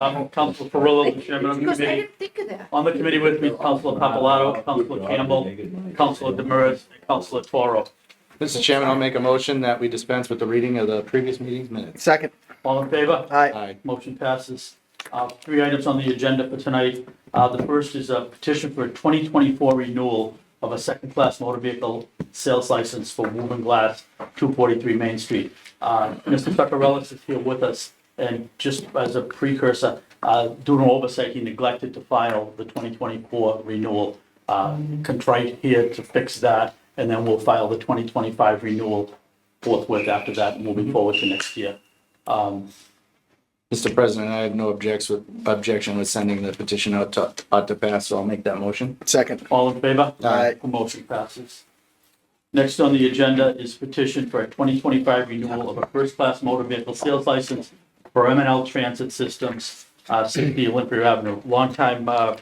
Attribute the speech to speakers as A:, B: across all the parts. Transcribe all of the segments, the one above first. A: Um, Council Carrillo, the chairman of the
B: Because I
A: committee.
B: didn't think of that.
A: On the committee with me, Councilor Papalato, Councilor Campbell, Councilor Demers, and Councilor Toro.
C: Mr. Chairman, I'll make a motion that we dispense with the reading of the previous meeting's minutes.
D: Second.
A: All in favor?
D: Aye.
C: Aye.
A: Motion passes. Uh, Three items on the agenda for tonight. Uh, The first is a petition for a 2024 renewal of a second-class motor vehicle sales license for Woven Glass, 243 Main Street. Uh, Mr. Pepperellis is here with us, and just as a precursor, uh, due to oversight, he neglected to file the 2024 renewal. Uh, Contrite here to fix that, and then we'll file the 2025 renewal forthwith after that, moving forward to next year. Um,
C: Mr. President, I have no objects with, objection with sending the petition out to, out to pass, so I'll make that motion.
D: Second.
A: All in favor?
D: Aye.
A: The motion passes. Next on the agenda is petition for a 2025 renewal of a first-class motor vehicle sales license for m and L Transit Systems, uh, 60 Olympia Avenue. Longtime uh,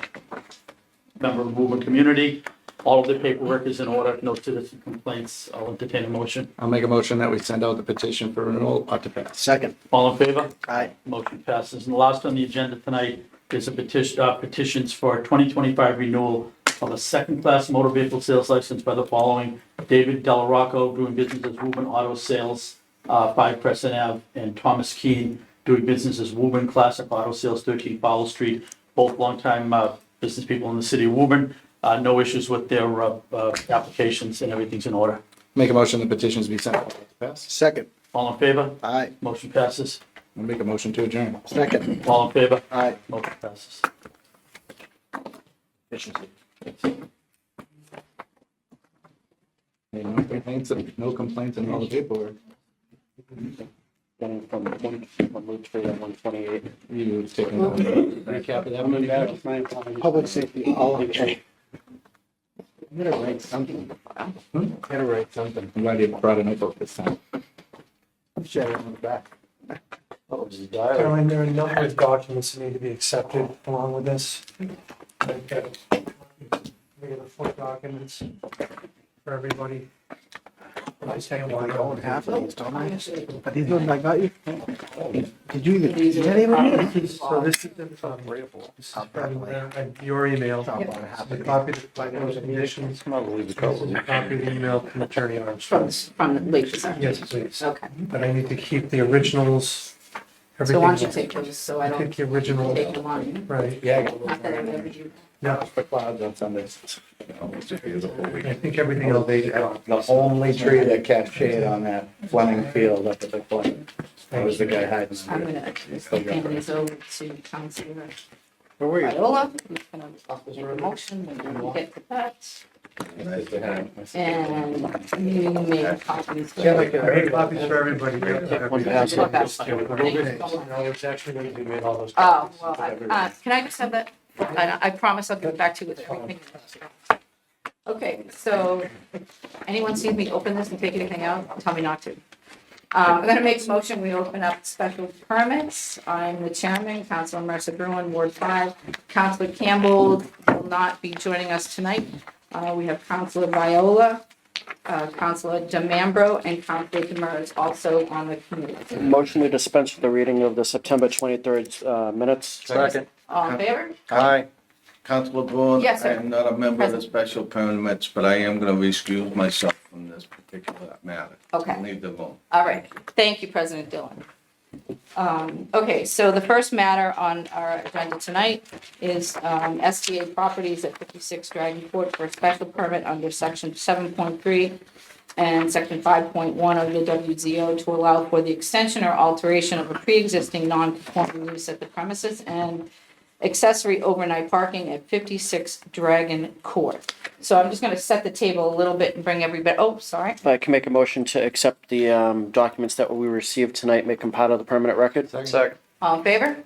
A: member of the Movement Community. All of the paperwork is in order, no citizen complaints. I'll entertain a motion.
C: I'll make a motion that we send out the petition for renewal out to pass.
D: Second.
A: All in favor?
D: Aye.
A: Motion passes. And the last on the agenda tonight is a petition, uh, petitions for a 2025 renewal of a second-class motor vehicle sales license by the following: David Delarocco, doing business as Woburn Auto Sales, uh, 5 Crescent Ave, and Thomas Keane, doing business as Woburn Classic Auto Sales, 13 Powell Street, both longtime uh, business people in the city of Woburn. Uh, No issues with their uh, uh, applications, and everything's in order.
C: Make a motion the petitions be sent out to pass.
D: Second.
A: All in favor?
D: Aye.
A: Motion passes.
C: I'll make a motion to adjourn.
D: Second.
A: All in favor?
D: Aye.
A: Motion passes.
C: Hey, No complaints, no complaints and all the paperwork.
E: Going from one, one Route Street and one twenty-eight.
C: You taking a recap of that one back?
D: Public safety, all okay.
E: I'm gonna write something.
C: Hmm?
E: Gotta write something.
C: I'm glad you brought a notebook this time.
E: Share it on the back.
A: Oh, this is
F: Caroline, there are a number of documents that need to be accepted along with this. I've got- We got the four documents for everybody. I say one.
D: I own half of these, don't I? Are these ones I got you? Did you even, did anyone?
F: So this is the, um, from, uh, your email. The copy of the bylaws and conditions. This is a Copy of the email from Attorney
B: From,
F: Armstrong.
B: from the leases, aren't
F: Yes, please.
B: Okay.
F: But I need to keep the originals.
B: So why don't you
F: everything.
B: take those, so I
F: I
B: don't
F: think the
B: take
F: original,
B: them on you?
F: right.
C: Yeah.
B: Not that I remember you.
F: No,
C: For clouds on Sundays. Almost just because of the whole week.
F: I think everything else.
C: The only tree that catch shade on that Fleming field up at the corner. That was the guy hiding.
B: I'm
C: under
B: gonna,
C: it.
B: accuse the families over to Councilor
D: Where were you?
B: Viola, who's gonna make a motion when you get the that. And you made copies.
F: Yeah, like, I made copies for everybody.
B: pass one.
F: No, it's actually going to be made all those.
B: Oh,
F: copies.
B: well, I, uh, can I just have that? I, I promise I'll get back to you with everything. Okay, so anyone sees me open this and take anything out, tell me not to. Uh, I'm gonna make a motion, we open up special permits. I'm the chairman, Councilor Mercer Bruin, Ward five. Councilor Campbell will not be joining us tonight. Uh, we have Councilor Viola, uh, Councilor DeMambro, and Councilor Demers also on the committee.
E: Motion to dispense with the reading of the September twenty-third, uh, minutes.
G: Second.
B: All in favor?
G: Hi, Councilor Boone.
B: Yes, sir.
G: I am not a member of the
B: Present.
G: special permits, but I am going to excuse myself from this particular matter.
B: Okay.
G: Leave the room.
B: All right, thank you, President Dillon. Um, Okay, so the first matter on our agenda tonight is um, SBA Properties at 56 Dragon Court for a special permit under Section 7.3 and Section 5.1 of the WZO to allow for the extension or alteration of a pre-existing non-conforming use at the premises and accessory overnight parking at 56 Dragon Court. So I'm just going to set the table a little bit and bring everybody, oh, sorry.
E: I can make a motion to accept the, um, documents that we received tonight, make them part of the permanent record.
C: Second.
B: All in favor?